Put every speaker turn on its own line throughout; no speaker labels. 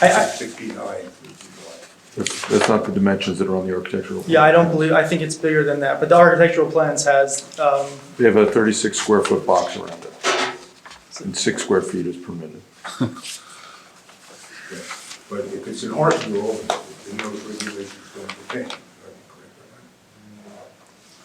I, I,
six feet high.
That's, that's not the dimensions that are on the architectural. plan.
yeah, I don't believe, I think it's bigger than that, but the architectural plans has, um,
They have a thirty-six square foot box around it. And six square feet is permitted.
Yeah. But if it's an art mural, then those regulations don't pertain.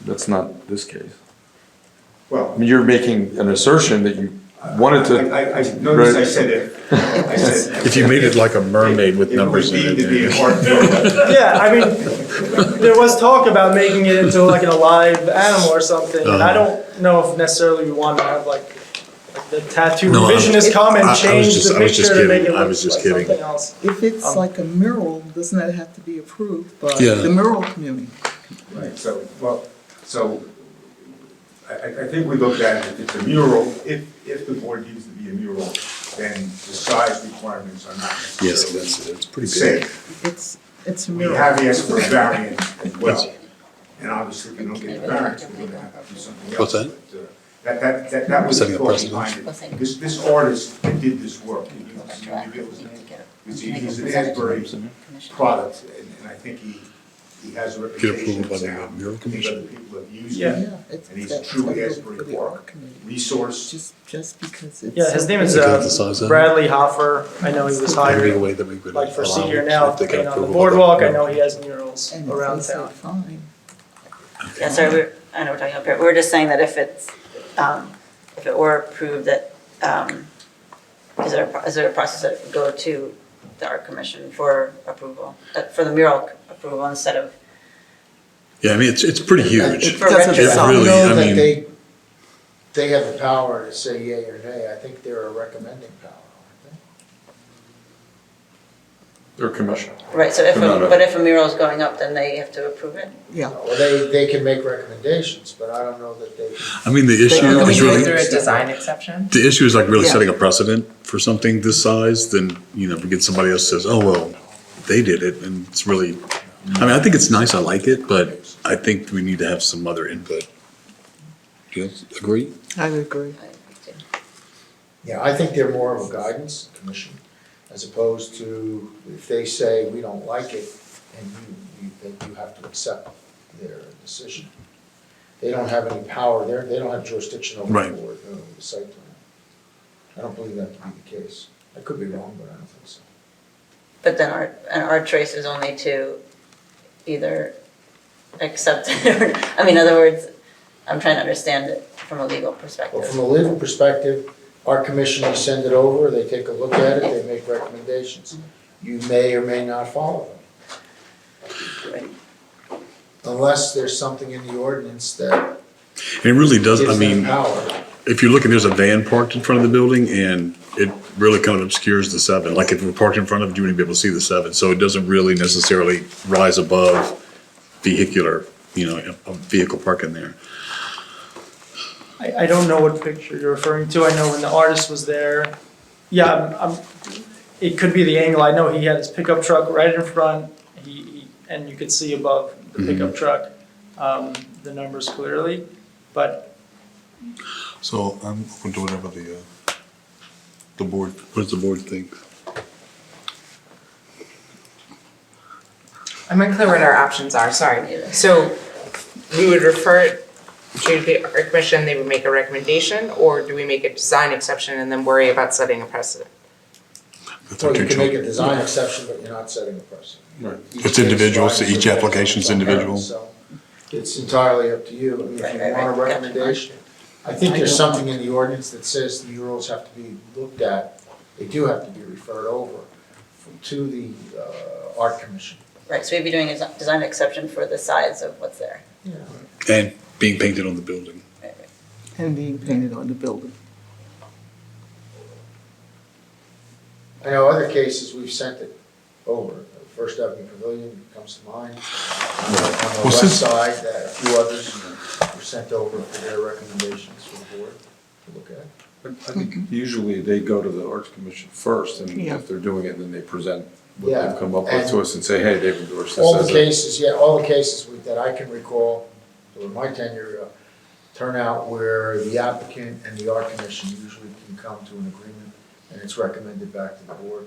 That's not this case. I
Well,
mean, you're making an assertion that you wanted
I,
to,
I, I noticed I said it. I said-
If you made it like a mermaid with numbers in
It would be to be an
it.
art mural.
yeah, I mean, there was talk about making it into like an alive animal or something, and
Uh-huh.
I don't know if necessarily we want to have like the tattoo
No, I-
revisionist come
I- I
and
was
change
just-
the
I was just
picture to make it
kidding. I
look like
was just kidding.
something else.
If
Oh.
it's like a mural, doesn't that have to be approved by
Yeah.
the mural community?
Right, so, well, so I, I I think we looked at it, if it's a mural, if, if the board deems to be a mural, then the size requirements are not necessarily.
Yes, that's, it's pretty big.
Safe.
It's, it's a
We
mural.
have asked for a variance as well, and obviously, if we don't get the variance, we're gonna have to do something else.
What's that?
But, uh, That, that, that, that was the
Setting a
thought
precedent.
behind it. This, this artist that did this work, he- he- he revealed his name. He's, he's an Asbury product, and, and I think he, he has a reputation
approved by the
now. I
Mural
think
Commission?
other people have used
Yeah.
him,
it's-
and he's a
that's
true
gotta go
Asbury
for the
Park.
art community,
resource,
Just, just because it's.
Yeah, his name is
Is that
uh,
the size of it?
Bradley Hoffer. I know he was
Maybe a
hired,
way that we could.
like for
allow
senior
it
now,
if they can
playing on the
approve
boardwalk.
all that.
I know he has murals
And
around
if they say
town.
fine,
Yeah, sorry, we're, I know we're talking up here, we're just saying that if it's, um, if it were approved that, um, is there, a pro- is there a process that would go to the art commission for approval, uh, for the mural approval instead of,
Yeah, I mean, it's, it's pretty huge.
it doesn't
It
sound.
really- I
know
mean-
that they, they have the power to say yay or nay, I think they're a recommending power, aren't
or commission.
right, so if,
No, no.
a- but if a mural is going up, then they have to approve it?
Yeah,
they? Well, they, they can make recommendations, but I don't know that they can.
I mean, the issue
Can we
is
go through a
really,
design exception?
the issue is like really
Yeah.
setting a precedent for something this size, then, you know, if we get somebody else says, oh, well, they did it, and it's really, I mean, I think it's nice, I like it, but I think we need to have some other input. Do you agree?
I would agree.
Yeah, I think they're more of a guidance commission as opposed to if they say, we don't like it, and you, you think you have to accept their decision. They don't have any power there, they don't have jurisdiction over
Right.
the board, over the site plan. I don't believe that to be the case. I could be wrong, but I don't think so.
But then our, and our trace is only to either accept it or, I mean, in other words, I'm trying to understand it from a legal perspective.
Well, from a legal perspective, our commissioners send it over, they take a look at it, they make recommendations. You may or may not follow them,
Right.
unless there's something in the ordinance that
And it really does, I
gives them
mean.
power.
if you're looking, there's a van parked in front of the building and it really kind of obscures the seven. Like if it we're parked in front of it, you wouldn't be able to see the seven. So it doesn't really necessarily rise above vehicular, you know, a vehicle parking there.
I, I don't know what picture you're referring to. I know when the artist was there. Yeah, I'm, I'm, it could be the angle. I know he had his pickup truck right in front. He, he and you could see above the pickup truck um, the numbers clearly, but
So I'm open to whatever the, uh, the board, what does the board think?
I'm unclear what our options are, sorry. So we would refer it to the art commission, they would make a recommendation, or do we make a design exception and then worry about setting a precedent?
That's our
Or you
two
can make a
children.
design exception, but you're not setting a precedent.
Right.
Each
It's individual,
case
so each
drives its
application's
own
individual.
So It's entirely up to you, I mean, if
Right,
you
right,
want a
right. Gotcha.
recommendation. I think there's something in the ordinance that says the murals have to be looked at, they do have to be referred over to the uh, art commission.
Right, so we'd be doing a desi- design exception for the size of what's there.
Yeah.
And being painted on the building.
And being painted on the building.
I know other cases, we've sent it over, First Avenue Pavilion comes to mind, on the on the
Well,
west
since-
side, that a few others were sent over for their recommendations for the board to look at.
I think
Mm-hmm.
usually they go to the arts commission first, and
Yeah.
if they're doing it, then they present what
Yeah,
they've come up with to
and-
us and say, hey, they've endorsed this
All
as
the
a.
cases, yeah, all the cases with- that I can recall during my tenure uh, turn out where the applicant and the art commission usually can come to an agreement and it's recommended back to the board.